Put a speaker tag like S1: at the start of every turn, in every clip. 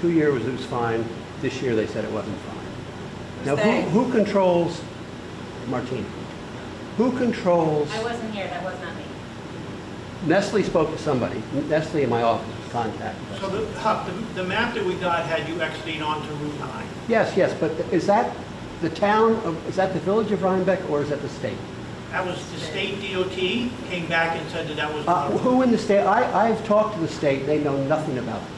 S1: Two years it was fine, this year they said it wasn't fine. Now,
S2: They.
S1: who, who controls, Martine, who controls,
S3: I wasn't here, that was not me.
S1: Nestle spoke to somebody, Nestle in my office was contacted.
S4: So the, Huck, the, the map that we got had you exiting onto Route 9.
S1: Yes, yes, but is that the town, of is that the village of Rhinebeck or is that the state?
S4: That was the state DOT came back and said that that was
S1: Uh,
S4: not a road.
S1: Who in the state, I, I've talked to the state, they know nothing about this.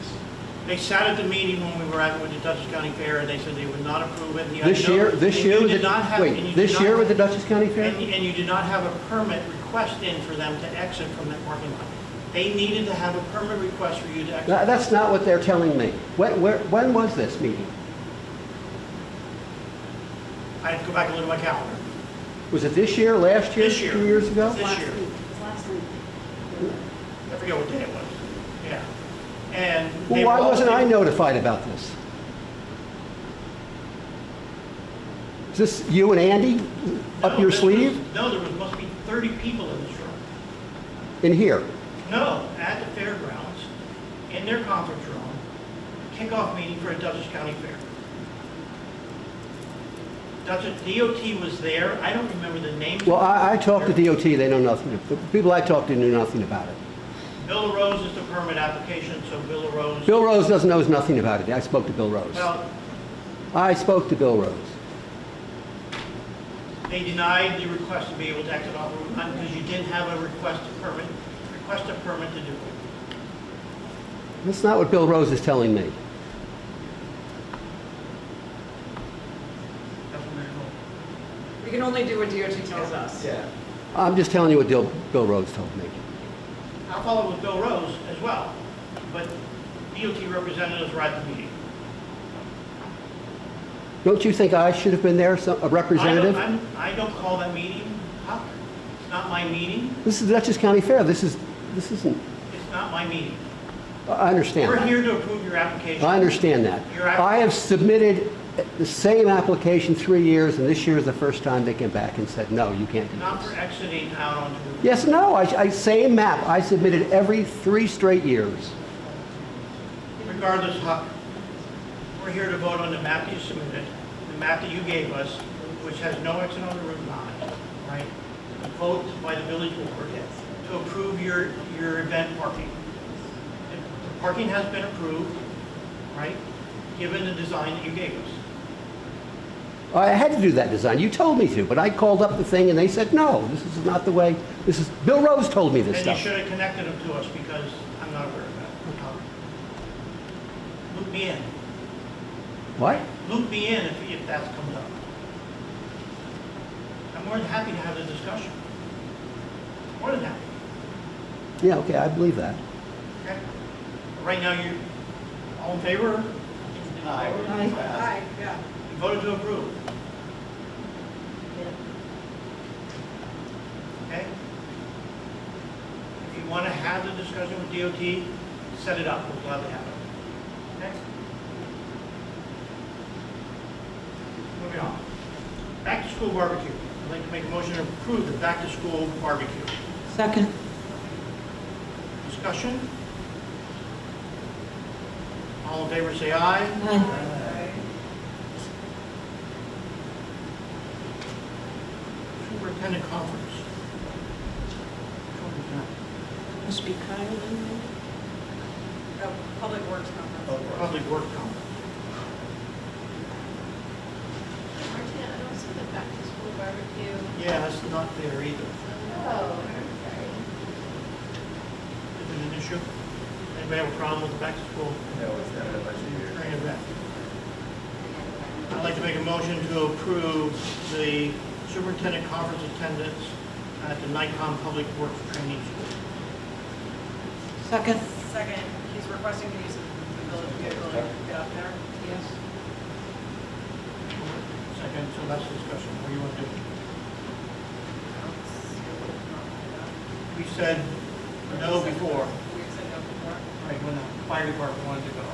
S4: They sat at the meeting when we were at, with the Dutchess County Fair, and they said they would not approve it. and you had
S1: This
S4: no-
S1: year, this
S4: and
S1: year,
S4: you
S1: with
S4: did not
S1: the-
S4: have- and you
S1: wait,
S4: did
S1: this
S4: not-
S1: year with the Dutchess County Fair?
S4: And, and you did not have a permit request in for them to exit from that parking lot. They needed to have a permit request for you to exit.
S1: Tha- That's not what they're telling me. When, where, when was this meeting?
S4: I had to go back and look at my calendar.
S1: Was it this year, last year?
S4: This year.
S1: Two years ago?
S4: This year.
S2: Last week.
S4: I forget what day it was. Yeah. And.
S1: Well,
S4: they
S1: why
S4: were all-
S1: wasn't I notified about this? Is this you and Andy
S4: No,
S1: up your
S4: this
S1: sleeve
S4: was- No, there was, must be 30 people in this room.
S1: in here?
S4: No, at the fairgrounds, in their conference room, kickoff meeting for a Dutchess County Fair. Dutchess, DOT was there, I don't remember the names.
S1: Well, I, I talked to DOT, they know nothing. The people I talked to knew nothing about it.
S4: Bill LaRose is the permit application, so Bill LaRose.
S1: Bill Rose doesn't knows nothing about it. I spoke to Bill Rose.
S4: Well,
S1: I spoke to Bill Rose.
S4: they denied the request to be able to exit off Route 9 because you didn't have a request to permit, request a permit to do it.
S1: That's not what Bill Rose is telling me.
S4: That's what they're told.
S2: We can only do what DOT tells us.
S1: I'm just telling you what Bill, Bill Rose told me.
S4: I'll follow with Bill Rose as well, but DOT representatives were at the meeting.
S1: Don't you think I should have been there, some- a representative?
S4: I don't, I'm- I don't call that meeting, Huck. It's not my meeting.
S1: This is the Dutchess County Fair. This is, this isn't,
S4: It's not my meeting.
S1: I understand.
S4: We're
S1: that.
S4: here to approve your application.
S1: I understand that.
S4: Your app-
S1: I have submitted the same application three years, and this year is the first time they came back and said, no, you can't do
S4: Not
S1: this.
S4: for exiting out onto the.
S1: Yes, no, I, I, same map. I submitted every three straight years.
S4: Regardless, Huck, we're here to vote on the map that you submitted, the map that you gave us, which has no exit on the Route 9, right? Vote by the village board to approve your, your event parking. The Parking has been approved, right, given the design that you gave us.
S1: I had to do that design. You told me to, but I called up the thing and they said, no, this is not the way, this is, Bill Rose told me this
S4: Then you
S1: stuff.
S4: should have connected them to us because I'm not aware of that. Huck. Loop me in,
S1: What?
S4: loop me in if, if that comes up. I'm more than happy to have the discussion. More than happy,
S1: Yeah, okay, I believe that.
S4: okay? Right now, you're all in favor?
S2: Aye, yeah.
S4: You voted to approve, okay? If you want to have the discussion with DOT, set it up, we'll gladly have it. Okay? Moving on. Back to school barbecue. I'd like to make a motion to approve the back to school barbecue.
S5: Second.
S4: Discussion? All in favor, say aye.
S5: Aye.
S4: Superintendent conference.
S5: Must be Kyle in
S2: Oh, Public Works Conference.
S4: Public work conference.
S3: Martina, I don't see the back to school barbecue.
S4: Yeah, that's not there either.
S3: Oh, I'm
S4: Is it an issue? Anybody have a problem with the back to school
S6: No, it's not a bunch of years.
S4: training event? I'd like to make a motion to approve the superintendent conference attendance at the Nikon Public Works Training School.
S5: Second.
S2: Second, he's requesting to use the village vehicle to get up there.
S5: Yes.
S4: Second, so that's discussion. What do you want to do? We said no before,
S2: We said no before.
S4: right, when the fire department wanted to go.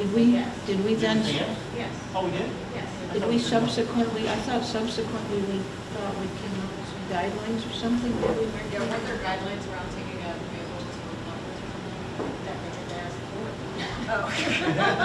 S5: Did we,
S3: Yes.
S5: did we then,
S4: Did you say yes?
S3: sorry. Yes,
S4: Oh, we did?
S3: yes.
S5: did we subsequently, I thought subsequently we thought we came up with some guidelines or something? Did we?
S3: Yeah, weren't there guidelines around taking a vehicle to school conference or something? That they did ask for?
S2: Oh.